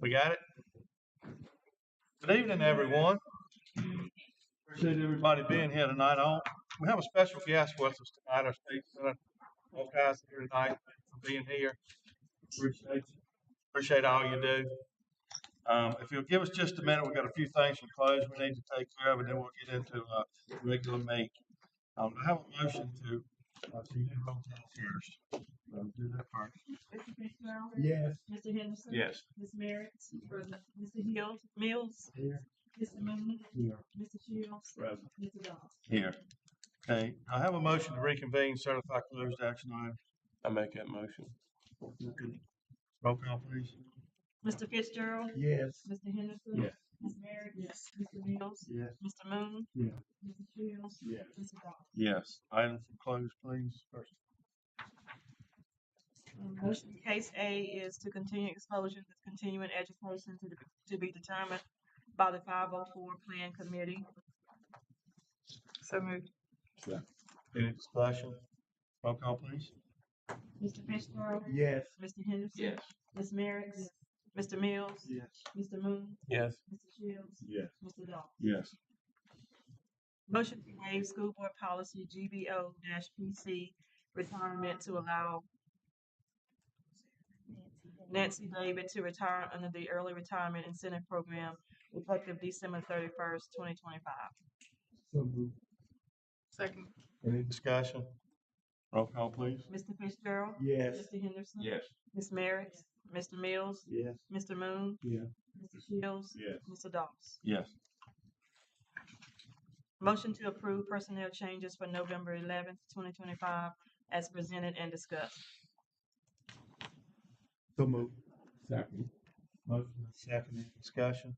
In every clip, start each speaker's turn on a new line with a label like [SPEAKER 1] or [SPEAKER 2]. [SPEAKER 1] We got it? Good evening, everyone. Appreciate everybody being here tonight. I- We have a special guest with us tonight, our state senator, all guys here tonight for being here. Appreciate you. Appreciate all you do. Um, if you'll give us just a minute, we've got a few things in close we need to take care of, and then we'll get into, uh, regular meeting. Um, I have a motion to, uh, to do hotel first. Uh, Do that first.
[SPEAKER 2] Mr. Fitzgerald.
[SPEAKER 3] Yes.
[SPEAKER 2] Mr. Henderson.
[SPEAKER 1] Yes.
[SPEAKER 2] Ms. Merrick. Present. Mr. Hill, Mills.
[SPEAKER 3] Here.
[SPEAKER 2] Mr. Moon.
[SPEAKER 3] Here.
[SPEAKER 2] Mr. Shields.
[SPEAKER 1] Present.
[SPEAKER 2] Mr. Dawes.
[SPEAKER 1] Here. Okay, I have a motion to reconvene certified closed action item.
[SPEAKER 4] I make that motion.
[SPEAKER 1] Roll call, please.
[SPEAKER 2] Mr. Fitzgerald.
[SPEAKER 3] Yes.
[SPEAKER 2] Mr. Henderson.
[SPEAKER 1] Yes.
[SPEAKER 2] Ms. Merrick. Yes. Mr. Mills.
[SPEAKER 3] Yes.
[SPEAKER 2] Mr. Moon.
[SPEAKER 3] Yeah.
[SPEAKER 2] Mr. Shields.
[SPEAKER 3] Yeah.
[SPEAKER 2] Mr. Dawes.
[SPEAKER 1] Yes. Item for closed, please. First.
[SPEAKER 2] Um, Motion, case A is to continue exposure to continuing education to, the- to be determined by the five oh four plan committee. So moved.
[SPEAKER 1] Any discussion? Roll call, please.
[SPEAKER 2] Mr. Fitzgerald.
[SPEAKER 3] Yes.
[SPEAKER 2] Mr. Henderson.
[SPEAKER 4] Yes.
[SPEAKER 2] Ms. Merrick. Mr. Mills.
[SPEAKER 3] Yes.
[SPEAKER 2] Mr. Moon.
[SPEAKER 4] Yes.
[SPEAKER 2] Mr. Shields.
[SPEAKER 3] Yes.
[SPEAKER 2] Mr. Dawes.
[SPEAKER 1] Yes.
[SPEAKER 2] Motion to waive school board policy GBO PC retirement to allow Nancy David to retire under the early retirement incentive program effective December thirty-first, twenty twenty-five.
[SPEAKER 3] So moved.
[SPEAKER 2] Second.
[SPEAKER 1] Any discussion? Roll call, please.
[SPEAKER 2] Mr. Fitzgerald.
[SPEAKER 3] Yes.
[SPEAKER 2] Mr. Henderson.
[SPEAKER 4] Yes.
[SPEAKER 2] Ms. Merrick. Mr. Mills.
[SPEAKER 3] Yes.
[SPEAKER 2] Mr. Moon.
[SPEAKER 3] Yeah.
[SPEAKER 2] Mr. Shields.
[SPEAKER 3] Yes.
[SPEAKER 2] Mr. Dawes.
[SPEAKER 1] Yes.
[SPEAKER 2] Motion to approve personnel changes for November eleventh, twenty twenty-five as presented and discussed.
[SPEAKER 3] So moved. Second.
[SPEAKER 1] Motion and second, any discussion?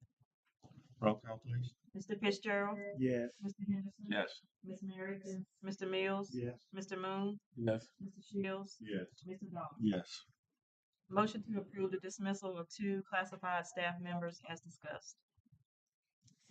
[SPEAKER 1] Roll call, please.
[SPEAKER 2] Mr. Fitzgerald.
[SPEAKER 3] Yes.
[SPEAKER 2] Mr. Henderson.
[SPEAKER 4] Yes.
[SPEAKER 2] Ms. Merrick. Mr. Mills.
[SPEAKER 3] Yes.
[SPEAKER 2] Mr. Moon.
[SPEAKER 4] Yes.
[SPEAKER 2] Mr. Shields.
[SPEAKER 3] Yes.
[SPEAKER 2] Mr. Dawes.
[SPEAKER 1] Yes.
[SPEAKER 2] Motion to approve the dismissal of two classified staff members as discussed.